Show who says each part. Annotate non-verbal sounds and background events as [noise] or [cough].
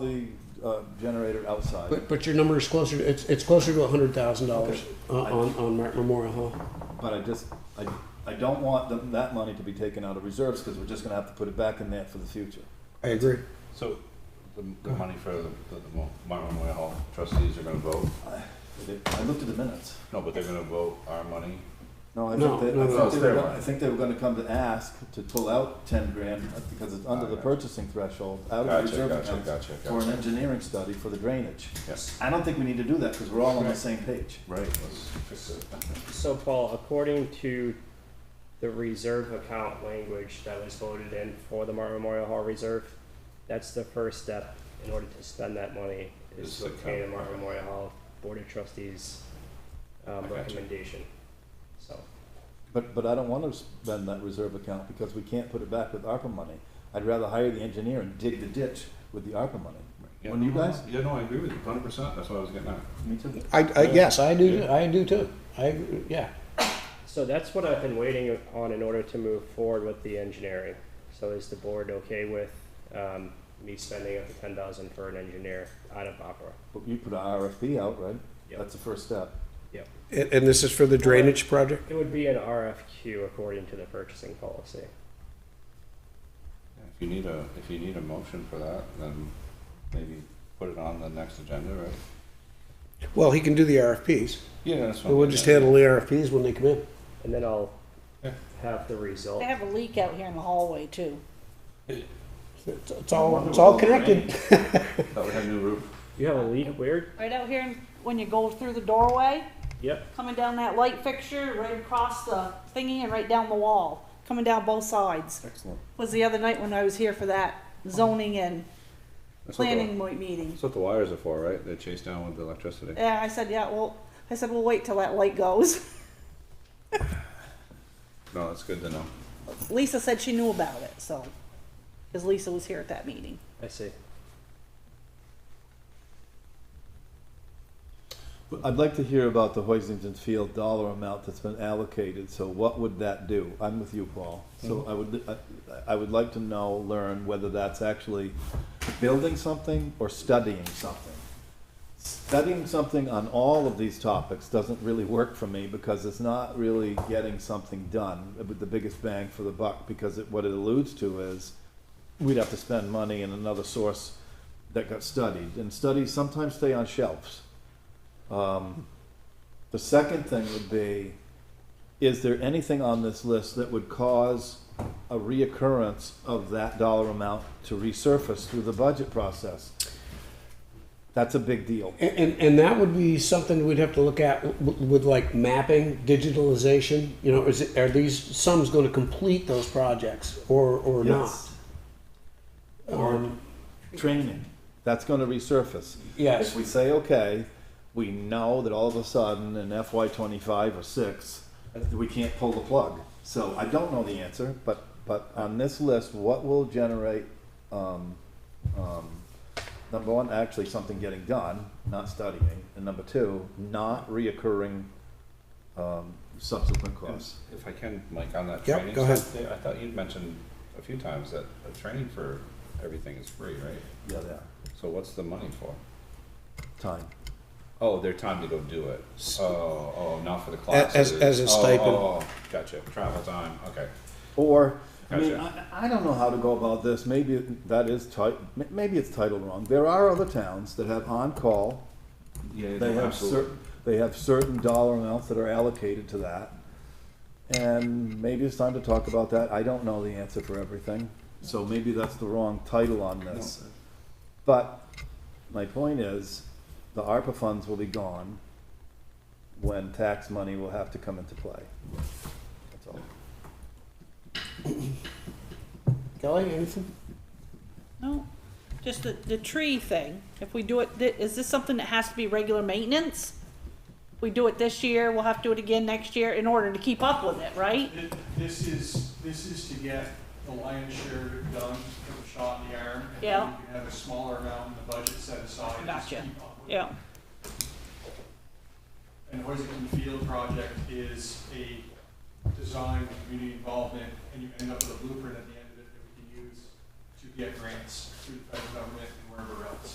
Speaker 1: The uh, generator outside,
Speaker 2: But, but your number is closer, it's, it's closer to a hundred thousand dollars
Speaker 1: Okay.
Speaker 2: on, on Martin Memorial, huh?
Speaker 1: but I just, I, I don't want them- that money to be taken out of reserves because we're just gonna have to put it back in there for the future.
Speaker 2: I agree.
Speaker 3: So the, the money for the, the, the Mo- Martin Memorial Hall trustees are gonna vote,
Speaker 1: I I looked at the minutes.
Speaker 3: no, but they're gonna vote our money.
Speaker 1: No, I
Speaker 2: No,
Speaker 1: think they,
Speaker 2: no,
Speaker 1: I
Speaker 2: no.
Speaker 1: think they
Speaker 3: It's
Speaker 1: were,
Speaker 3: their
Speaker 1: gonna-
Speaker 3: money.
Speaker 1: I think they were gonna come to ask to pull out ten grand uh, because it's under the
Speaker 3: Alright.
Speaker 1: purchasing threshold, out of
Speaker 3: Gotcha,
Speaker 1: reserve
Speaker 3: gotcha,
Speaker 1: accounts
Speaker 3: gotcha,
Speaker 1: for an
Speaker 3: gotcha.
Speaker 1: engineering study for the drainage.
Speaker 3: Yes.
Speaker 1: I don't think we need to do that because we're all on the
Speaker 3: Right.
Speaker 1: same page.
Speaker 3: Right, let's fix it.
Speaker 4: So Paul, according to the reserve account language that was voted in for the Martin Memorial Hall Reserve, that's the first step in order to spend that money
Speaker 3: Is
Speaker 4: is
Speaker 3: the
Speaker 4: to pay the
Speaker 3: account,
Speaker 4: Martin
Speaker 3: okay.
Speaker 4: Memorial Hall Board of Trustees
Speaker 3: I
Speaker 4: um,
Speaker 3: got you.
Speaker 4: recommendation. So,
Speaker 1: But, but I don't want to spend that reserve account because we can't put it back with ARPA money. I'd rather hire the engineer and dig the ditch with the ARPA money.
Speaker 3: Yeah,
Speaker 1: Wouldn't you
Speaker 3: no, no,
Speaker 1: guys?
Speaker 3: Yeah, no, I agree with you, hundred percent, that's what I was getting at.
Speaker 1: Me too.
Speaker 2: I, I, yes, I do, I do too. I, agree. yeah.
Speaker 4: so that's what I've been waiting on in order to move forward with the engineering. So is the board okay with um, me spending up to ten thousand for an engineer out of opera?
Speaker 1: But you put an RFP out, right?
Speaker 4: Yep.
Speaker 1: That's the first step.
Speaker 5: And, and this is for the drainage project?
Speaker 4: It would be an RFQ according to the purchasing policy.
Speaker 3: Yeah, If you need a, if you need a motion for that, then maybe put it on the next agenda, right?
Speaker 5: Well, he can do the RFPs.
Speaker 3: Yeah, that's what. I'm
Speaker 2: We'll just
Speaker 3: getting
Speaker 2: handle
Speaker 3: at.
Speaker 2: the RFPs when they come in.
Speaker 4: And then I'll
Speaker 3: Yeah.
Speaker 4: have the result.
Speaker 6: They have a leak out here in the hallway too.
Speaker 2: It's, it's all, it's all connected.
Speaker 3: Thought we had a new roof.
Speaker 4: You have a leak, weird?
Speaker 6: Right out here, when you go through the doorway,
Speaker 4: Yep.
Speaker 6: coming down that light fixture, right across the thingy and right down the wall, coming down both sides.
Speaker 1: Excellent.
Speaker 6: Was the other night when I was here for that zoning and
Speaker 3: That's what the-
Speaker 6: planning mo- meeting.
Speaker 3: That's what the wires are for, right? They chase down with the electricity.
Speaker 6: Yeah, I said, yeah, well, I said, we'll wait till that light goes. [laughs]
Speaker 3: No, that's good to know.
Speaker 6: Lisa said she knew about it, so, cause Lisa was here at that meeting.
Speaker 4: I see.
Speaker 1: I'd like to hear about the Hoisington Field dollar amount that's been allocated, so what would that do? I'm with you, Paul. So I would, I, I would like to know, learn whether that's actually building something or studying something. Studying something on all of these topics doesn't really work for me because it's not really getting something done with the biggest bang for the buck, because it, what it alludes to is we'd have to spend money in another source that got studied, and studies sometimes stay on shelves. Um, The second thing would be, is there anything on this list that would cause a reoccurrence of that dollar amount to resurface through the budget process? That's a big deal.
Speaker 2: And, and, and that would be something we'd have to look at with, with like mapping, digitalization, you know, is it, are these sums gonna complete those projects or, or not? Um,
Speaker 1: Yes. Or training, that's gonna resurface.
Speaker 2: Yes.
Speaker 1: If we say, okay, we know that all of a sudden in FY twenty-five or six, we can't pull the plug. So I don't know the answer, but, but on this list, what will generate, um, um, number one, actually something getting done, not studying, and number two, not reoccurring, um, subsequent costs.
Speaker 3: If I can, Mike, on that
Speaker 5: Yep,
Speaker 3: training
Speaker 5: go ahead.
Speaker 3: stuff, there, I thought you'd mentioned a few times that the training for everything is free, right?
Speaker 1: Yeah, they are.
Speaker 3: So what's the money for?
Speaker 1: Time.
Speaker 3: Oh, their time to go do it. Oh, oh, not for the
Speaker 5: A-
Speaker 3: classes.
Speaker 5: as- as a
Speaker 3: Oh,
Speaker 5: stipend.
Speaker 3: Oh, oh, gotcha, travel time, okay.
Speaker 1: Or, I mean, I,
Speaker 3: Gotcha.
Speaker 1: I don't know how to go about this, maybe that is tight, maybe it's titled wrong. There are other towns that have on-call
Speaker 3: Yeah,
Speaker 1: They have certain, they have certain dollar amounts that are allocated to that. And maybe it's time to talk about that. I don't know the answer for everything, so maybe that's the wrong title on this. But my point is, the ARPA funds will be gone when tax money will have to come into play. That's all.
Speaker 2: Kelly, anything?
Speaker 6: No, just the, the tree thing. If we do it, thi- is this something that has to be regular maintenance? We do it this year, we'll have to do it again next year in order to keep up with it, right?
Speaker 7: Th- This is, this is to get the lion's share done, give a shot in the arm. and then
Speaker 6: Yeah.
Speaker 7: You can have a smaller amount in the budget set aside. and just
Speaker 6: Gotcha.
Speaker 7: keep up with it.
Speaker 6: Yeah,
Speaker 7: And Hoisington Field project is a design with community involvement, and you end up with a blueprint at the end of it that we can use to get grants through the federal government and wherever else.